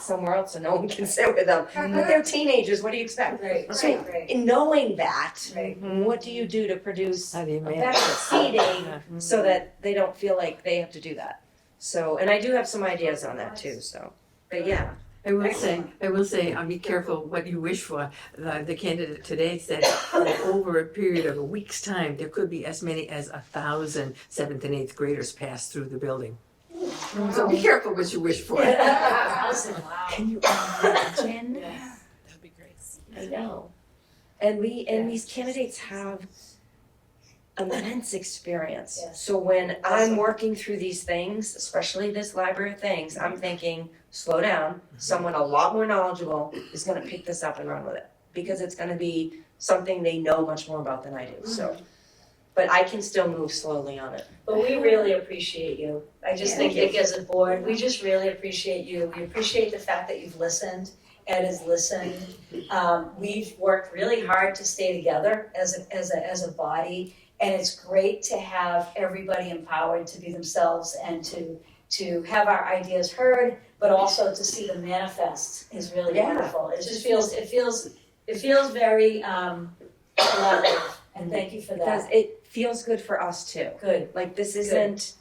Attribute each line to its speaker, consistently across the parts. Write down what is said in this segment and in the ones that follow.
Speaker 1: somewhere else and no one can sit with them. But they're teenagers, what do you expect?
Speaker 2: Uh-huh. Right,
Speaker 1: So,
Speaker 2: right, right,
Speaker 1: in knowing that,
Speaker 2: right.
Speaker 1: what do you do to produce
Speaker 3: How do you manage?
Speaker 1: effective seating so that they don't feel like they have to do that? So, and I do have some ideas on that too, so, but yeah.
Speaker 4: I will say, I will say, um, be careful what you wish for. The, the candidate today said that over a period of a week's time, there could be as many as a thousand seventh and eighth graders pass through the building. So be careful what you wish for.
Speaker 1: Can you imagine?
Speaker 5: That'd be great.
Speaker 1: I know. And we, and these candidates have immense experience.
Speaker 2: Yes.
Speaker 1: So when I'm working through these things, especially this library of things, I'm thinking, slow down. Someone a lot more knowledgeable is gonna pick this up and run with it. Because it's gonna be something they know much more about than I do, so. But I can still move slowly on it.
Speaker 2: But we really appreciate you. I just
Speaker 1: Yeah.
Speaker 2: think
Speaker 1: Thank
Speaker 2: it as a board, we just really appreciate you. We appreciate the fact that you've listened. Ed has listened. Um, we've worked really hard to stay together as a, as a, as a body. And it's great to have everybody empowered to be themselves and to, to have our ideas heard, but also to see them manifest is really
Speaker 1: Yeah.
Speaker 2: wonderful. It just feels, it feels, it feels very, um, collaborative. And thank you for
Speaker 1: Because
Speaker 2: that.
Speaker 1: it feels good for us too.
Speaker 2: Good.
Speaker 1: Like this isn't,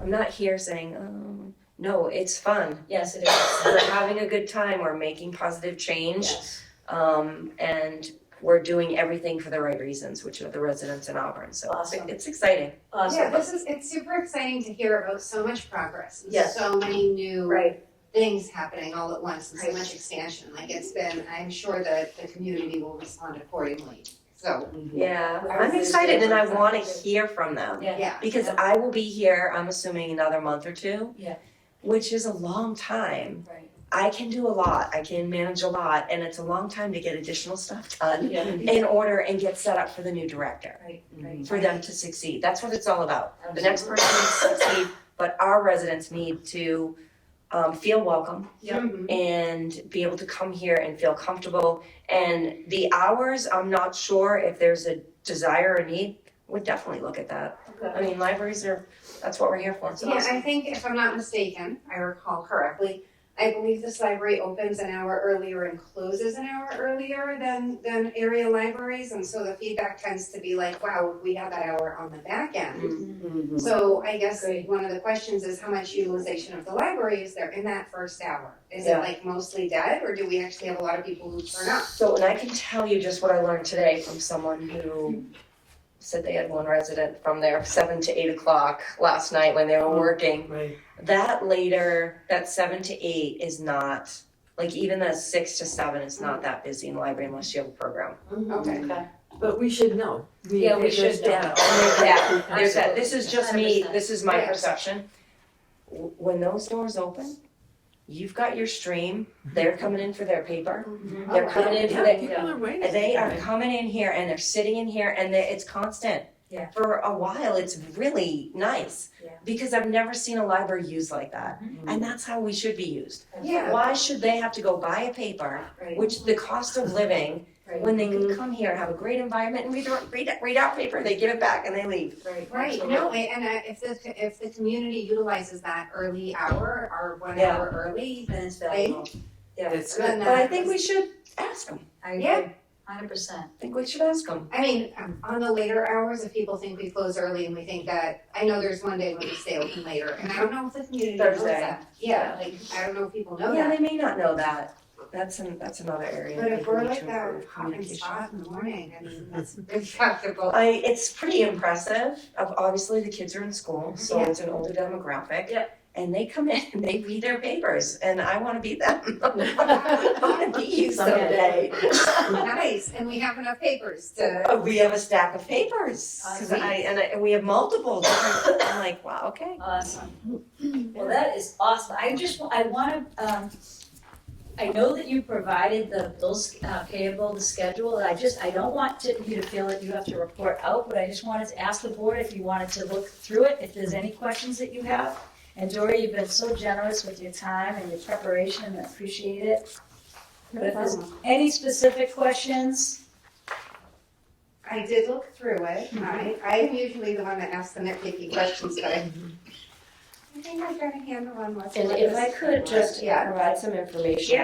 Speaker 1: I'm not here saying, oh, no, it's fun.
Speaker 2: Yes, it is.
Speaker 1: we're having a good time, we're making positive change,
Speaker 2: Yes.
Speaker 1: um, and we're doing everything for the right reasons, which are the residents in Auburn, so it's,
Speaker 2: Awesome.
Speaker 1: it's exciting.
Speaker 6: Yeah,
Speaker 2: Awesome.
Speaker 6: this is, it's super exciting to hear about so much progress. and
Speaker 2: Yes.
Speaker 6: So many new
Speaker 2: Right.
Speaker 6: things happening all at once and so
Speaker 2: Right.
Speaker 6: much expansion. Like it's been, I'm sure that the community will respond accordingly. So,
Speaker 2: Mm-hmm.
Speaker 1: Yeah,
Speaker 2: Ours
Speaker 1: I'm
Speaker 2: is
Speaker 1: excited and I
Speaker 2: different.
Speaker 1: wanna hear from them,
Speaker 2: Yeah.
Speaker 6: yeah.
Speaker 1: because
Speaker 2: Yeah.
Speaker 1: I will be here, I'm assuming another month or two.
Speaker 2: Yeah.
Speaker 1: Which is a long time,
Speaker 2: Right.
Speaker 1: I can do a lot, I can manage a lot, and it's a long time to get additional stuff done
Speaker 2: Yeah.
Speaker 1: in order and get set up for the new director,
Speaker 2: Right, right.
Speaker 1: for them to succeed, that's what it's all about. the next
Speaker 2: Absolutely.
Speaker 1: person needs to succeed, but our residents need to um, feel welcome
Speaker 2: Mm-hmm.
Speaker 6: Mhm.
Speaker 1: and be able to come here and feel comfortable. And the hours, I'm not sure if there's a desire or need, would definitely look at that. I mean, libraries are, that's what we're here for.
Speaker 6: Yeah, I think if I'm not mistaken, I recall correctly, I believe this library opens an hour earlier and closes an hour earlier than, than area libraries. And so the feedback tends to be like, wow, we have that hour on the back end.
Speaker 1: Mm-hmm.
Speaker 6: So I guess
Speaker 2: Great.
Speaker 6: one of the questions is how much utilization of the library is there in that first hour? Is it
Speaker 1: Yeah.
Speaker 6: like mostly dead or do we actually have a lot of people who turn up?
Speaker 1: So, and I can tell you just what I learned today from someone who said they had one resident from there seven to eight o'clock last night when they were working.
Speaker 4: Right.
Speaker 1: that later, that seven to eight is not, like even the six to seven is not that busy in the library unless you have a program.
Speaker 6: Okay.
Speaker 4: But we should know.
Speaker 2: Yeah, we
Speaker 4: there's
Speaker 2: should know.
Speaker 4: data.
Speaker 1: Yeah, There's that, this is just me,
Speaker 2: 100%.
Speaker 1: this is my
Speaker 6: Yeah.
Speaker 1: perception. W- When those doors open, you've got your stream, they're coming in for their paper, they're coming in for
Speaker 4: Yeah,
Speaker 1: their,
Speaker 4: people are waiting.
Speaker 1: they are coming in here and they're sitting in here and they- it's constant.
Speaker 2: Yeah.
Speaker 1: For a while, it's really nice.
Speaker 2: Yeah.
Speaker 1: Because I've never seen a library used like that, and that's how we should be used.
Speaker 6: Yeah.
Speaker 1: Why should they have to go buy a paper,
Speaker 2: Right,
Speaker 1: which the cost of living,
Speaker 2: right,
Speaker 1: when they could come here, have a great environment and read, their- read, read out paper, they give it back and they leave.
Speaker 2: right.
Speaker 6: Right, no, and uh, if the, if the community utilizes that early hour or one
Speaker 1: Yeah.
Speaker 6: hour early,
Speaker 2: Then it's valuable.
Speaker 6: valuable.
Speaker 2: Yeah,
Speaker 4: That's
Speaker 6: then
Speaker 4: good.
Speaker 1: But I think we should ask them,
Speaker 2: I
Speaker 6: Yeah.
Speaker 2: Hundred percent.
Speaker 1: I think we should ask them.
Speaker 6: I mean, um, on the later hours, if people think we close early and we think that, I know there's one day when we stay open later, and I don't know if the community knows
Speaker 1: Thursday.
Speaker 6: that. Yeah, like, I don't know if people know
Speaker 1: Yeah,
Speaker 6: that.
Speaker 1: they may not know that, that's an, that's another area.
Speaker 6: Oh, But if
Speaker 1: that we
Speaker 6: we're
Speaker 1: need
Speaker 6: like
Speaker 1: to
Speaker 6: that
Speaker 1: improve
Speaker 6: hot and
Speaker 1: communication.
Speaker 6: spot in the morning, I mean, that's impractical.
Speaker 1: I, it's pretty impressive, of obviously the kids are in
Speaker 6: Mm-hmm.
Speaker 1: school, so it's an older demographic.
Speaker 2: Yeah.
Speaker 1: And they come in and they read their papers, and I wanna be them. I wanna be you someday.
Speaker 6: Nice, and we have enough papers to,
Speaker 1: Uh, we have a stack of papers. 'cause
Speaker 2: Awesome.
Speaker 1: I, and, I, and we have multiple. Different, I'm like, wow, okay.
Speaker 2: Awesome. Well, that is awesome. I just, wa- I wanna, um, I know that you provided the bills uh, payable, the schedule, and I just, I don't want to, you to feel that you have to report out, but I just wanted to ask the board if you wanted to look through it, if there's any questions that you have. And Dory, you've been so generous with your time and your preparation, and I appreciate it. But if there's any specific questions,
Speaker 6: I did look
Speaker 1: Mm-hmm.
Speaker 6: through it, I, I am usually the one that asks the nitpicky questions, but I
Speaker 7: think I've got a handle on what's.
Speaker 6: And
Speaker 7: what
Speaker 6: if
Speaker 7: is-
Speaker 6: I could just
Speaker 5: Yeah, provide some information.